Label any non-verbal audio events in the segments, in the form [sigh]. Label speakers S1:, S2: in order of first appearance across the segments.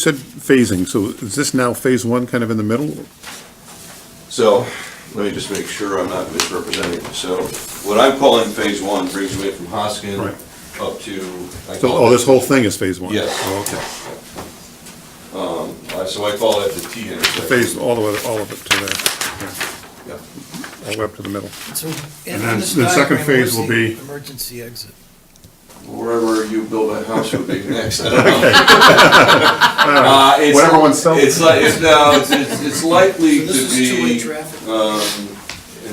S1: said phasing, so is this now phase one kind of in the middle?
S2: So, let me just make sure I'm not misrepresenting. So, what I'm calling phase one brings me from Hoskin
S1: Right.
S2: up to. I
S1: So,
S2: call
S1: oh,
S2: it-
S1: this whole thing is phase one?
S2: Yes.
S1: Oh, okay.
S2: uh, So I call that the T intersection.
S1: Phase, all the way, all of it to there,
S2: Yeah.
S1: yeah, all the way up to the middle.
S3: So in-
S1: And
S3: in
S1: then
S3: this
S1: the second
S3: diagram,
S1: phase
S3: where's
S1: will
S3: the
S1: be-
S3: Emergency exit.
S2: Wherever you build that house would be
S1: [laughs]
S2: next, [laughs] I don't know. Uh, it's-
S1: Whatever one's self-
S2: It's like, it's, no, it's, it's it's likely to
S3: So this is two-way
S2: be,
S3: traffic.
S2: um,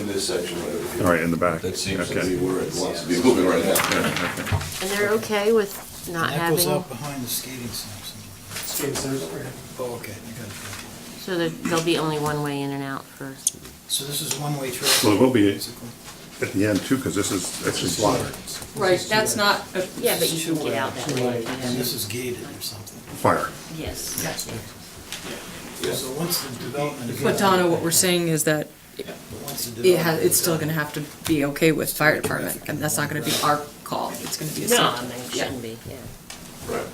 S2: in this section right over here.
S1: All right, in the back.
S2: That seems to
S1: Okay.
S2: be where it wants to be moving right now.
S1: Yeah, okay.
S4: And they're okay with not
S3: And that goes
S4: having,
S3: out behind the skating sinks.
S5: Skating centers over here.
S3: Oh, okay, I got it.
S4: so there- there'll be only one way in and out for,
S3: So this is one-way traffic.
S1: Well, it will be-
S3: basically.
S1: At the end too, because this is, this is lot.
S6: Right, that's not. uh, a-
S4: yeah, but you can get out that way. if you
S3: And this
S4: have-
S3: is gated or something.
S1: fire.
S4: Yes.
S3: So once the development. is-
S6: But Donna, what we're saying is that
S3: But once the
S6: it has,
S3: development
S6: it's
S3: is
S6: still
S3: done,
S6: gonna have to be okay with fire department, and that's not gonna be our call, it's gonna be a.
S4: No, I
S6: safety-
S4: mean, it
S6: yeah.
S4: shouldn't be, yeah.
S2: Right.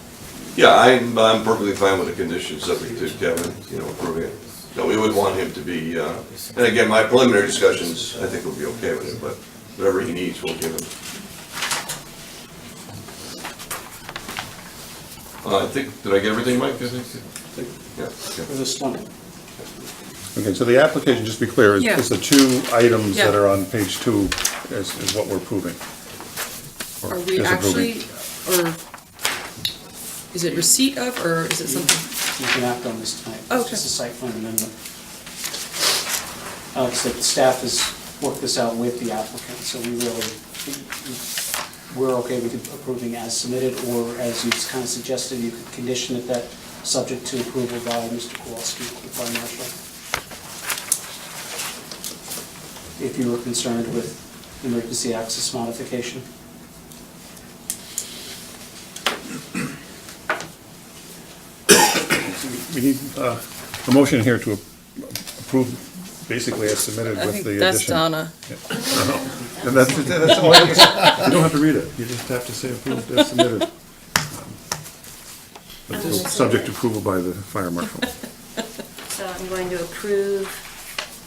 S2: Yeah, I'm, I'm perfectly fine with the condition subject to Kevin, you know, approving it. No, we would want him to be, uh, and again, my preliminary discussions, I think will be okay with it, but whatever he needs, we'll give him. Uh, I think, did I get everything, Mike? I think- Yeah, okay.
S5: There's a slump.
S1: Okay, so the application, just to be clear, is-
S6: Yeah.
S1: is the two items that
S6: Yeah.
S1: are on page two is, is what we're proving. or
S6: Are we
S1: disapproving.
S6: actually, or is it receipt of, or is it something?
S5: You can act on this tonight. It's
S6: Okay.
S5: just a site plan amendment. Uh, Like I said, the staff has worked this out with the applicant, so we really, we're okay with approving as submitted, or as you've kind of suggested, you could condition it that, subject to approval by Mr. Kowalski, the fire marshal. If you were concerned with emergency access modification.
S1: We need, uh, a motion here to approve basically as submitted
S6: I
S1: with
S6: think
S1: the
S6: that's
S1: addition.
S6: Donna.
S1: And that's, that's all, you have to say. you don't have to read it, you just have to say approved as submitted. But it's Subject to approval by the fire marshal,
S4: So I'm going to approve,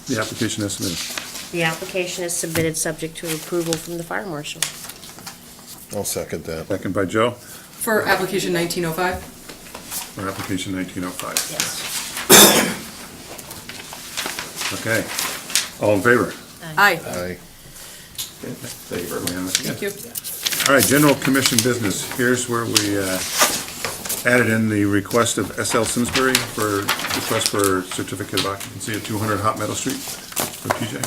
S1: the application as submitted.
S4: the application is submitted subject to approval from the fire marshal.
S7: I'll second that.
S1: Second by Joe,
S6: For application nineteen oh five?
S1: for application nineteen oh five.
S4: Yes.
S1: Okay, all in favor?
S6: Aye,
S7: Aye.
S2: Thank you very much.
S6: thank you.
S1: All right, general commission business, here's where we uh, added in the request of SL Simsbury for, request for certificate of occupancy at 200 Hot Meadow Street for TJ.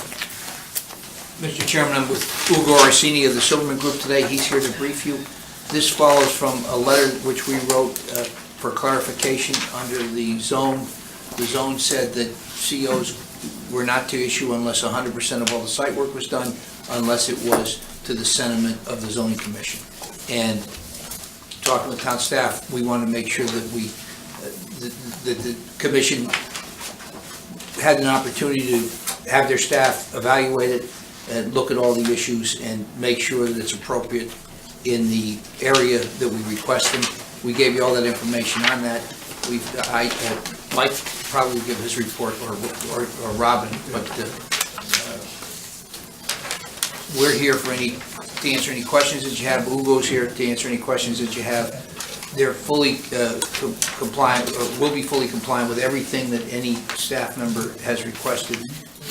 S8: Mr. Chairman, I'm with Ugo Arsini of the Silverman Group today. He's here to brief you. This follows from a letter which we wrote uh, for clarification under the zone. The zone said that COs were not to issue unless 100% of all the site work was done, unless it was to the sentiment of the zoning commission. And talking with town staff, we want to make sure that we, uh, that- that the commission had an opportunity to have their staff evaluate it and look at all the issues and make sure that it's appropriate in the area that we request them. We gave you all that information on that. We've, I, uh, Mike probably will give his report, or, or or Robin, but uh, uh, we're here for any, to answer any questions that you have. Ugo's here to answer any questions that you have. They're fully uh, com- compliant, or will be fully compliant with everything that any staff member has requested,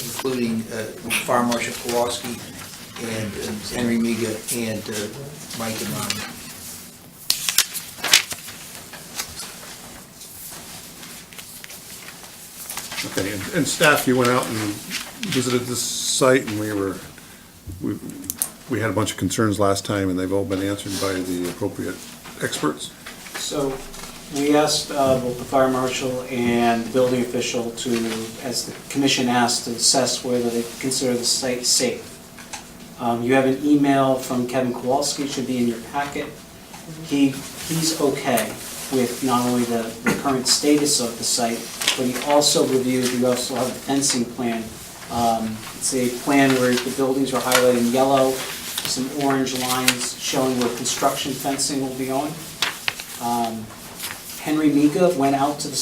S8: including uh, Fire Marshal Kowalski and uh, Henry Miga and uh, Mike and Ron.
S1: Okay, and- and staff, you went out and visited this site, and we were, we we had a bunch of concerns last time, and they've all been answered by the appropriate experts.
S5: So we asked uh, both the fire marshal and the building official to, as the commission asked, to assess whether they consider the site safe. Um, You have an email from Kevin Kowalski, it should be in your packet. He, he's okay with not only the the current status of the site, but he also reviewed, you also have a fencing plan. Um, It's a plan where the buildings are highlighted in yellow, some orange lines showing where construction fencing will be on. Um, Henry Mika went out to the